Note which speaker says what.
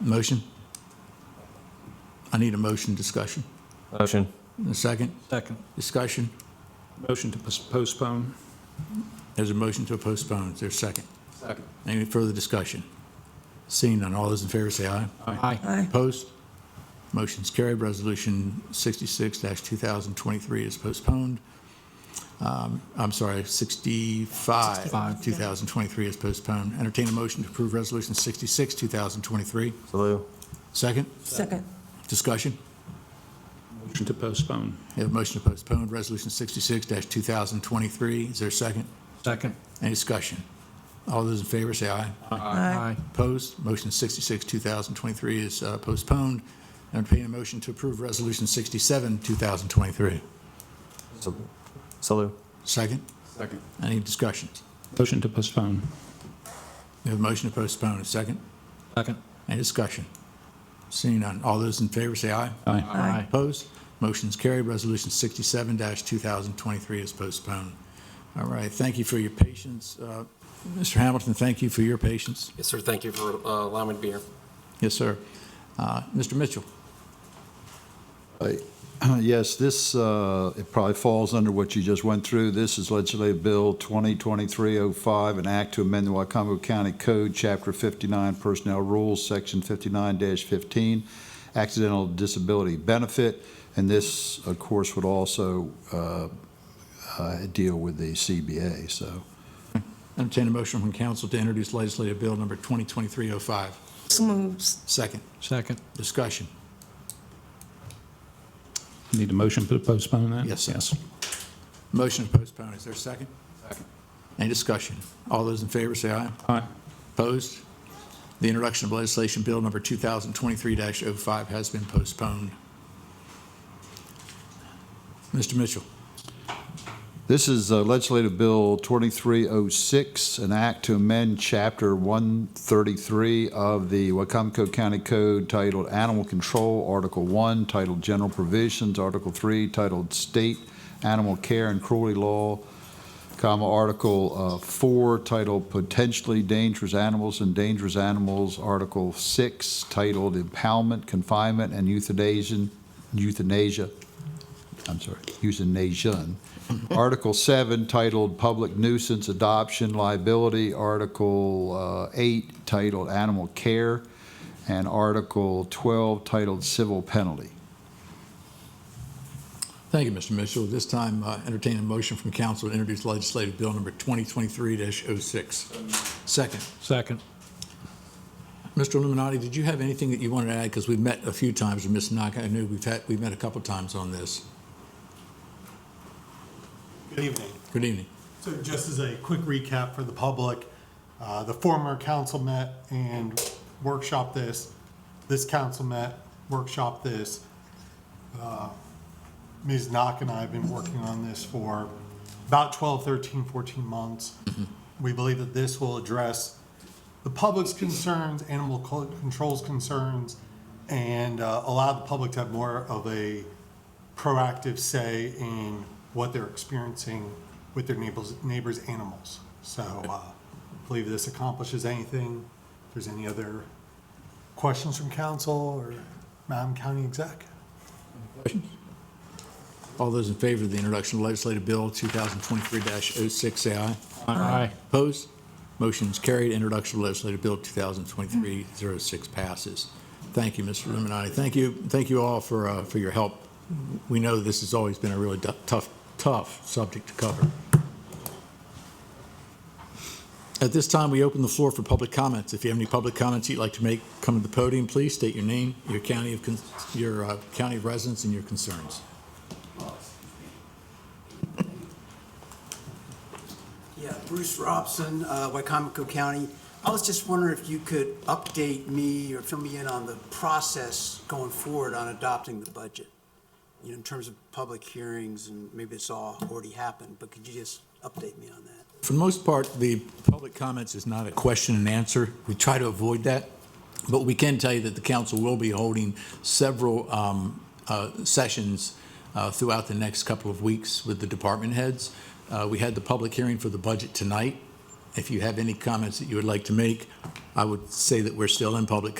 Speaker 1: Motion? I need a motion discussion.
Speaker 2: Motion.
Speaker 1: A second?
Speaker 3: Second.
Speaker 1: Discussion?
Speaker 3: Motion to pos- postpone.
Speaker 1: There's a motion to postpone. Is there a second? Any further discussion? Seeing none, all those in favor say aye.
Speaker 3: Aye.
Speaker 1: Opposed? Motion's carried. Resolution 66-2023 is postponed. Um, I'm sorry, 65,
Speaker 3: 65.
Speaker 1: 2023 is postponed. Entertain a motion to approve Resolution 66, 2023.
Speaker 2: Salute.
Speaker 1: Second?
Speaker 4: Second.
Speaker 1: Discussion?
Speaker 3: Motion to postpone.
Speaker 1: We have a motion to postpone Resolution 66-2023. Is there a second?
Speaker 3: Second.
Speaker 1: Any discussion? All those in favor say aye.
Speaker 4: Aye.
Speaker 1: Opposed? Motion 66, 2023 is uh, postponed. Entertain a motion to approve Resolution 67, 2023.
Speaker 2: Salute.
Speaker 1: Second?
Speaker 3: Second.
Speaker 1: Any discussions?
Speaker 3: Motion to postpone.
Speaker 1: We have a motion to postpone. A second?
Speaker 3: Second.
Speaker 1: Any discussion? Seeing none. All those in favor say aye.
Speaker 3: Aye.
Speaker 4: Aye.
Speaker 1: Opposed? Motion's carried. Resolution 67-2023 is postponed. All right, thank you for your patience. Uh, Mr. Hamilton, thank you for your patience.
Speaker 5: Yes, sir. Thank you for uh, allowing me to be here.
Speaker 1: Yes, sir. Uh, Mr. Mitchell?
Speaker 6: Yes, this, uh, it probably falls under what you just went through. This is Legislative Bill 2023-05, an act to amend the Wycomico County Code, Chapter 59 Personnel Rules, Section 59-15, Accidental Disability Benefit, and this, of course, would also uh, uh, deal with the CBA, so.
Speaker 1: Entertain a motion from council to introduce legislative bill number 2023-05.
Speaker 4: So moves.
Speaker 1: Second,
Speaker 3: Second.
Speaker 1: discussion.
Speaker 3: Need a motion to postpone that?
Speaker 1: Yes, sir. Motion to postpone, is there a second? Second. Any discussion? All those in favor say aye.
Speaker 3: Aye.
Speaker 1: Opposed? The introduction of legislation bill number 2023-05 has been postponed. Mr. Mitchell,
Speaker 6: This is uh, Legislative Bill 2306, an act to amend Chapter 133 of the Wacomico County Code titled Animal Control, Article 1, titled General Provisions, Article 3, titled State Animal Care and Cruelty Law, comma, Article uh, 4, titled Potentially Dangerous Animals and Dangerous Animals, Article 6, titled Impoundment, Confinement, and Euthanasia, Euthanasia, I'm sorry, Euthanasia, Article 7 titled Public Nuisance Adoption Liability, Article uh, 8 titled Animal Care, and Article 12 titled Civil Penalty.
Speaker 1: thank you, Mr. Mitchell. At This time, uh, entertain a motion from council to introduce legislative bill number 2023-06. Second,
Speaker 3: Second.
Speaker 1: Mr. Illuminati, did you have anything that you wanted to add? Because we've met a few times with Ms. Knock. I knew we've had, we've met a couple times on this.
Speaker 7: Good evening.
Speaker 1: Good evening.
Speaker 7: So just as a quick recap for the public, uh, the former council met and workshop this. This council met, workshop this. Uh, Ms. Knock and I have been working on this for about 12, 13, 14 months. We believe that this will address the public's concerns, animal co- control's concerns, and uh, allow the public to have more of a proactive say in what they're experiencing with their neighbors, neighbors' animals. So uh, I believe this accomplishes anything. If there's any other questions from council or Madam County Exec?
Speaker 1: All those in favor of the introduction of legislative bill 2023-06, say aye.
Speaker 3: Aye.
Speaker 1: Opposed? Motion's carried. Introduction of legislative bill 2023-06 passes. Thank you, Mr. Illuminati. Thank you, thank you all for, uh, for your help. We know this has always been a really du- tough, tough subject to cover. At this time, we open the floor for public comments. If you have any public comments you'd like to make, come to the podium, please. State your name, your county of, con- your uh, county of residence, and your concerns.
Speaker 8: Yeah, Bruce Robson, uh, Wycomico County. I was just wondering if you could update me or fill me in on the process going forward on adopting the budget, you know, in terms of public hearings, and maybe it's all already happened, but could you just update me on that?
Speaker 1: For the most part, the public comments is not a question and answer. We try to avoid that, but we can tell you that the council will be holding several um, uh, sessions uh, throughout the next couple of weeks with the department heads. Uh, We had the public hearing for the budget tonight. If you have any comments that you would like to make, I would say that we're still in public